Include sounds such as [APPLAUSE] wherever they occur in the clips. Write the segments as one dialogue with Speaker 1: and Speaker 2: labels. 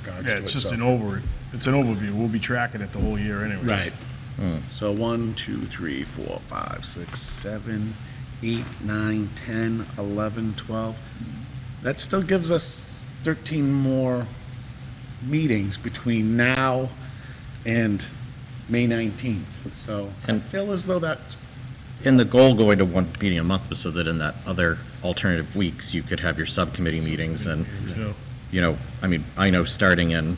Speaker 1: charge
Speaker 2: Yeah,
Speaker 1: to it,
Speaker 2: it's just
Speaker 1: so.
Speaker 2: an over, it's an overview. We'll be tracking it the whole year anyways.
Speaker 1: Right.
Speaker 3: So one, two, three, four, five, six, seven, eight, nine, ten, eleven, twelve. That still gives us thirteen more meetings between now and May nineteenth. So I
Speaker 4: And-
Speaker 3: feel as though that,
Speaker 4: And the goal going to one meeting a month was so that in that other alternative weeks, you could have your subcommittee meetings and,
Speaker 2: Yeah.
Speaker 4: you know, I mean, I know starting in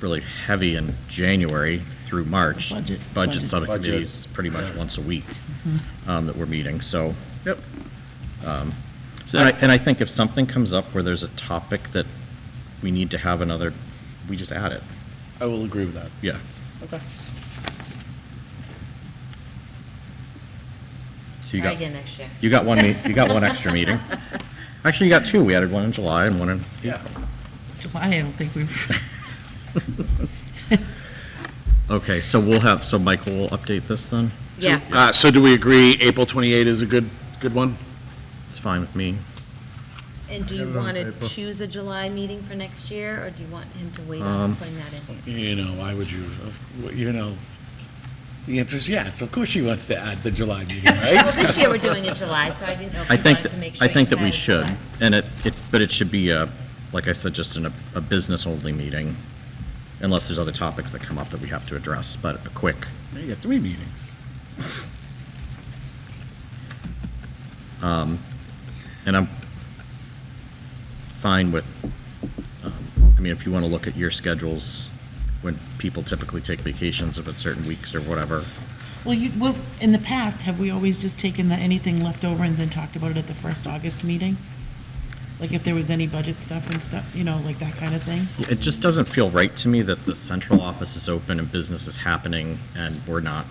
Speaker 4: really heavy in January through March,
Speaker 5: Budget-
Speaker 4: budget
Speaker 5: budget. Mm-hmm.
Speaker 4: subcommittees pretty much once a week um, that we're meeting, so.
Speaker 3: yep,
Speaker 4: And I, and I think if something comes up where there's a topic that we need to have another, we just add it,
Speaker 3: I will agree with that.
Speaker 4: yeah.
Speaker 3: Okay.
Speaker 4: So you
Speaker 6: Try
Speaker 4: got,
Speaker 6: again next year.
Speaker 4: you got one, me- you got one extra meeting. Actually, you got two, we added one in July and one in
Speaker 3: Yeah.
Speaker 5: July, I don't think we've,
Speaker 4: Okay, so we'll have, so Michael will update this then?
Speaker 6: Yes.
Speaker 3: Uh, so do we agree April twenty-eight is a good, good one?
Speaker 4: It's fine with me.
Speaker 6: And do you
Speaker 2: have it on
Speaker 6: want to
Speaker 2: paper.
Speaker 6: choose a July meeting for next year, or do you want him to wait
Speaker 4: Um,
Speaker 6: on putting that in? here?
Speaker 3: You know, why would you, of- you know, the answer is yes, of course she wants to add the July meeting,
Speaker 6: Well,
Speaker 3: right? [LAUGHS]
Speaker 6: this year we're doing it July, so I didn't know if
Speaker 4: I
Speaker 6: you
Speaker 4: think,
Speaker 6: wanted to make sure.
Speaker 4: I think
Speaker 6: you
Speaker 4: that we
Speaker 6: had it
Speaker 4: should,
Speaker 6: July.
Speaker 4: and it, it, but it should be, a- like I said, just in a, a business-only meeting, unless there's other topics that come up that we have to address, but a quick.
Speaker 3: You got three meetings.
Speaker 4: And I'm fine with, um, I mean, if you want to look at your schedules, when people typically take vacations, if it's certain weeks or whatever.
Speaker 5: well, you, well, in the past, have we always just taken the, anything left over and then talked about it at the first August meeting? Like if there was any budget stuff and stuff, you know, like that kind of thing?
Speaker 4: It just doesn't feel right to me that the central office is open and business is happening and we're not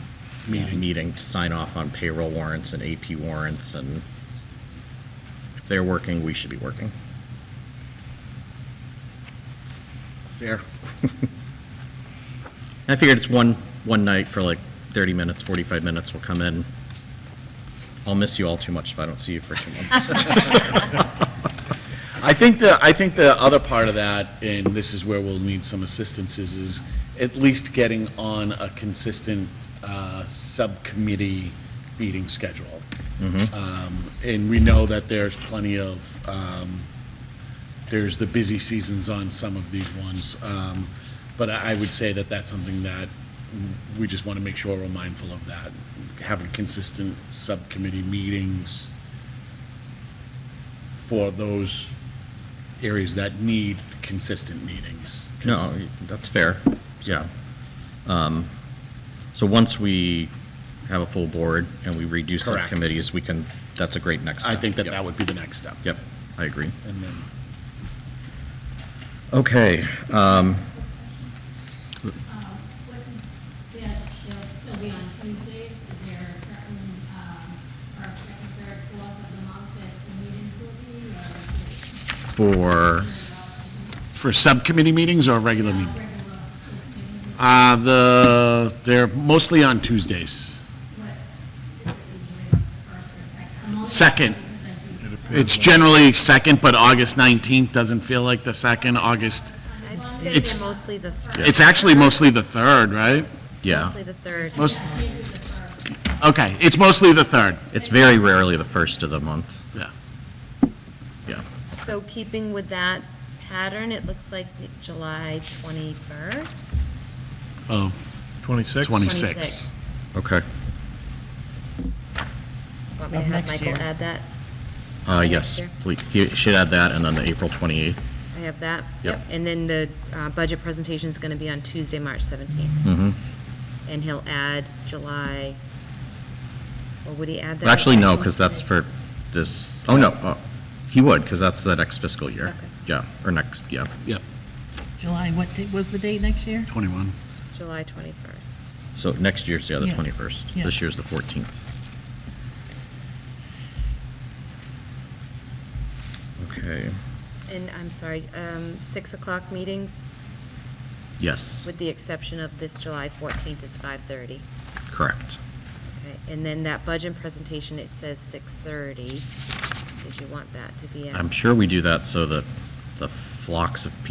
Speaker 4: meeting to sign off on payroll warrants and AP warrants and if they're working, we should be working.
Speaker 3: Fair.
Speaker 4: [LAUGHS] I figured it's one, one night for like 30 minutes, 45 minutes, we'll come in. I'll miss you all too much if I don't see you for two months.
Speaker 3: I think the, I think the other part of that, and this is where we'll need some assistance, is, is at least getting on a consistent, uh, subcommittee meeting schedule. Um, and we know that there's plenty of, um, there's the busy seasons on some of these ones. Um, but I I would say that that's something that we just want to make sure we're mindful of that, having consistent subcommittee meetings for those areas that need consistent meetings. 'Cause
Speaker 4: No, that's fair, yeah. Um, So once we have a full board and we redo
Speaker 3: Correct.
Speaker 4: subcommittees, we can, that's a great next
Speaker 3: I
Speaker 4: step.
Speaker 3: think that
Speaker 4: Yep.
Speaker 3: that would be the next step.
Speaker 4: Yep, I agree.
Speaker 3: And then,
Speaker 4: Okay, um,
Speaker 7: Yeah, she'll still be on Tuesdays. Is there a certain, um, or second, third, fourth of the month that the meetings will be, or is it
Speaker 4: for,
Speaker 3: for subcommittee meetings or regular meetings?
Speaker 7: regular fifteen?
Speaker 3: Uh, the, they're mostly on Tuesdays.
Speaker 7: What is it usually, first or second? I'm only-
Speaker 3: Second.
Speaker 7: Because I do-
Speaker 3: It's generally second, but August 19th doesn't feel like the second, August,
Speaker 6: I'd say they're
Speaker 3: It's-
Speaker 6: mostly the,
Speaker 3: it's actually mostly the third, right?
Speaker 4: yeah,
Speaker 6: mostly the third.
Speaker 3: Most, okay, it's mostly the third,
Speaker 4: it's very rarely the first of the month,
Speaker 3: yeah.
Speaker 4: yeah.
Speaker 6: So keeping with that pattern, it looks like July 21st?
Speaker 3: Of
Speaker 2: Twenty-six?
Speaker 3: 26.
Speaker 4: Okay,
Speaker 6: Want me to
Speaker 5: Of
Speaker 6: have
Speaker 5: next
Speaker 6: Michael
Speaker 5: year.
Speaker 6: add that?
Speaker 4: uh, yes, please, you should add that, and then the April 28th.
Speaker 6: I have that?
Speaker 4: Yep.
Speaker 6: And then the uh, budget presentation is going to be on Tuesday, March 17th.
Speaker 4: Mm-hmm.
Speaker 6: And he'll add July, or would he add that?
Speaker 4: Actually, no, because that's for this, oh, no, uh, he would, because that's the next fiscal year.
Speaker 6: Okay.
Speaker 4: Yeah, or next, yeah.
Speaker 3: Yep,
Speaker 5: July, what date was the date next year?
Speaker 3: 21.
Speaker 6: July 21st.
Speaker 4: So next year's the other
Speaker 5: Yeah.
Speaker 4: 21st.
Speaker 5: Yeah.
Speaker 4: This year's the 14th. Okay,
Speaker 6: And I'm sorry, um, 6 o'clock meetings,
Speaker 4: yes,
Speaker 6: with the exception of this July 14th is 5:30.
Speaker 4: correct.
Speaker 6: Okay, And then that budget presentation, it says 6:30. Did you want that to be at?
Speaker 4: I'm sure we do that so that the flocks of people